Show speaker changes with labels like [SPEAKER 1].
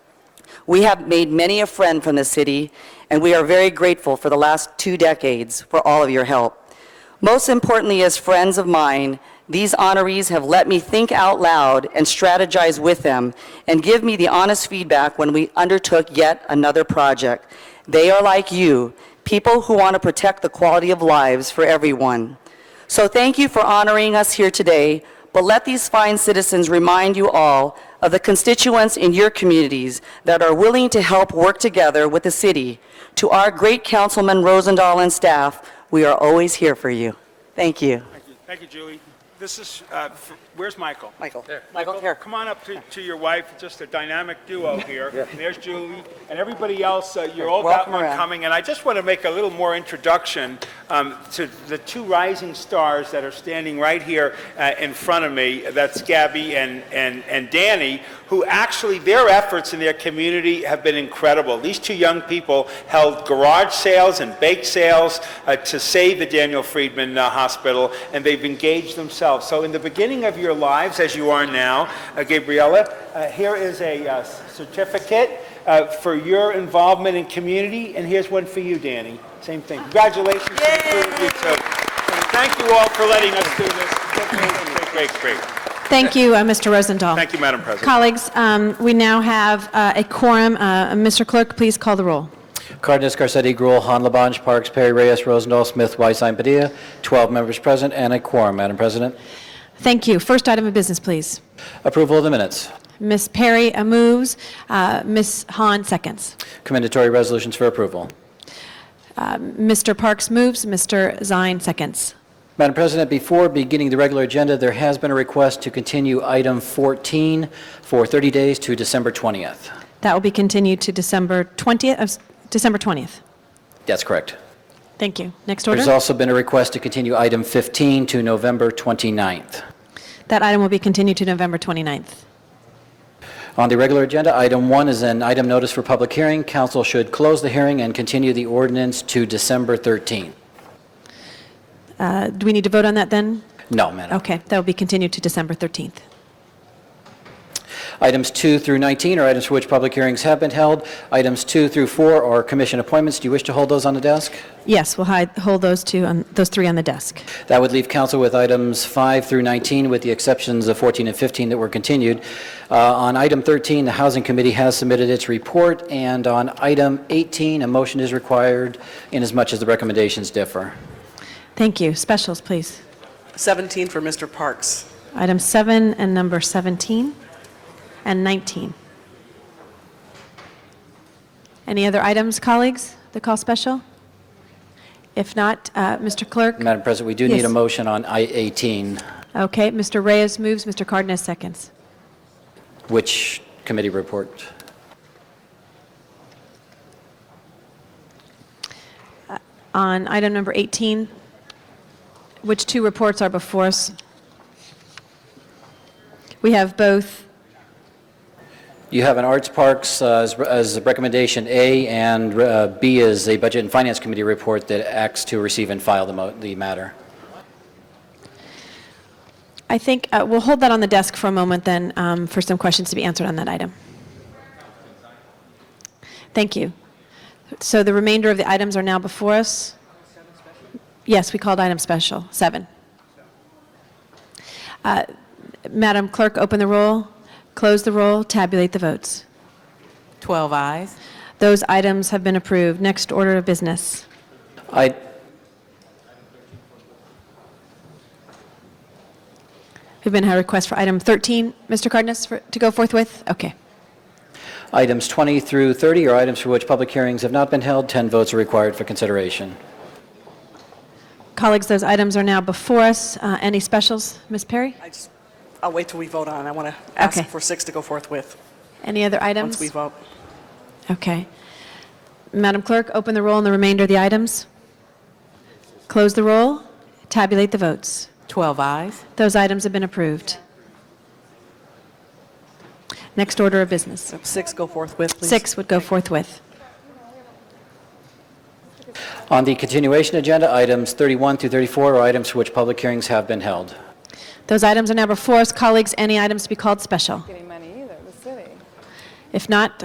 [SPEAKER 1] We have made many a friend from the city, and we are very grateful for the last two decades for all of your help. Most importantly, as friends of mine, these honorees have let me think out loud and strategize with them and give me the honest feedback when we undertook yet another project. They are like you, people who want to protect the quality of lives for everyone. So thank you for honoring us here today, but let these fine citizens remind you all of the constituents in your communities that are willing to help work together with the city. To our great Councilman Rosendahl and staff, we are always here for you. Thank you.
[SPEAKER 2] Thank you. Thank you, Julie. This is, uh, f- where's Michael?
[SPEAKER 1] Michael. Michael, here.
[SPEAKER 2] Come on up to, to your wife, just a dynamic duo here. There's Julie, and everybody else, uh, you're all got
[SPEAKER 1] Welcome
[SPEAKER 2] one
[SPEAKER 1] around.
[SPEAKER 2] coming, and I just want to make a little more introduction um, to the two rising stars that are standing right here uh, in front of me, that's Gabby and, and, and Danny, who actually, their efforts in their community have been incredible. These two young people held garage sales and bake sales uh, to save the Daniel Friedman uh, Hospital, and they've engaged themselves. So in the beginning of your lives, as you are now, uh, Gabriella, uh, here is a uh, certificate uh, for your involvement in community, and here's one for you, Danny. Same thing. Congratulations to the three of you two. And Thank you all for letting us do this. Great, great, great.
[SPEAKER 3] Thank you, uh, Mr. Rosendahl.
[SPEAKER 2] Thank you, Madam President.
[SPEAKER 3] Colleagues, um, we now have uh, a quorum. Uh, Mr. Clerk, please call the roll.
[SPEAKER 4] Cardenas, Garcetti, Gruel, Han, Labange, Parks, Perry, Reyes, Rosendahl, Smith, Weiss, Padilla, 12 members present and a quorum, Madam President.
[SPEAKER 3] Thank you. First item of business, please.
[SPEAKER 4] Approval of the minutes.
[SPEAKER 3] Ms. Perry uh, moves, uh, Ms. Hahn seconds.
[SPEAKER 4] Commendatory resolutions for approval.
[SPEAKER 3] Mr. Parks moves, Mr. Zine seconds.
[SPEAKER 4] Madam President, before beginning the regular agenda, there has been a request to continue item 14 for 30 days to December 20th.
[SPEAKER 3] That will be continued to December 20th, of- December 20th.
[SPEAKER 4] That's correct.
[SPEAKER 3] Thank you. Next
[SPEAKER 4] There's
[SPEAKER 3] order.
[SPEAKER 4] also been a request to continue item 15 to November 29th.
[SPEAKER 3] That item will be continued to November 29th.
[SPEAKER 4] On the regular agenda, item one is an item notice for public hearing. Council should close the hearing and continue the ordinance to December 13th.
[SPEAKER 3] Uh, Do we need to vote on that then?
[SPEAKER 4] No, Madam.
[SPEAKER 3] Okay, that will be continued to December 13th.
[SPEAKER 4] Items 2 through 19 are items for which public hearings have been held. Items 2 through 4 are commission appointments. Do you wish to hold those on the desk?
[SPEAKER 3] Yes, we'll hide- hold those two, on- those three on the desk.
[SPEAKER 4] That would leave council with items 5 through 19, with the exceptions of 14 and 15 that were continued. Uh, On item 13, the Housing Committee has submitted its report, and on item 18, a motion is required inasmuch as the recommendations differ.
[SPEAKER 3] Thank you. Specials, please.
[SPEAKER 5] 17 for Mr. Parks.
[SPEAKER 3] Item 7 and number 17 and 19. Any other items, colleagues, the call special? If not, uh, Mr. Clerk?
[SPEAKER 4] Madam President, we do need a
[SPEAKER 3] Yes.
[SPEAKER 4] motion on I-18.
[SPEAKER 3] Okay, Mr. Reyes moves, Mr. Cardenas seconds.
[SPEAKER 4] Which committee report?
[SPEAKER 3] On item number 18, which two reports are before us? We have both,
[SPEAKER 4] You have an Arts Parks uh, as as recommendation A, and uh, B is a Budget and Finance Committee report that acts to receive and file the mo- the matter.
[SPEAKER 3] I think, uh, we'll hold that on the desk for a moment then um, for some questions to be answered on that item. Thank you. So the remainder of the items are now before us? Yes, we called item special, seven. Uh, Madam Clerk, open the roll, close the roll, tabulate the votes.
[SPEAKER 5] 12 eyes.
[SPEAKER 3] Those items have been approved. Next order of business.
[SPEAKER 4] I,
[SPEAKER 3] We've been had a request for item 13, Mr. Cardenas, for- to go forthwith? Okay.
[SPEAKER 4] items 20 through 30 are items for which public hearings have not been held. 10 votes are required for consideration.
[SPEAKER 3] Colleagues, those items are now before us. Uh, Any specials? Ms. Perry?
[SPEAKER 5] I just, I'll wait till we vote on. it. I want to ask
[SPEAKER 3] Okay.
[SPEAKER 5] for six to go forth with,
[SPEAKER 3] Any other items?
[SPEAKER 5] once we vote.
[SPEAKER 3] Okay. Madam Clerk, open the roll on the remainder of the items. Close the roll, tabulate the votes.
[SPEAKER 5] 12 eyes.
[SPEAKER 3] Those items have been approved. Next order of business.
[SPEAKER 5] Six go forth with, please.
[SPEAKER 3] Six would go forthwith.
[SPEAKER 4] On the continuation agenda, items 31 through 34 are items for which public hearings have been held.
[SPEAKER 3] Those items are now before us. Colleagues, any items to be called special?
[SPEAKER 6] getting money either, the city.
[SPEAKER 3] If not,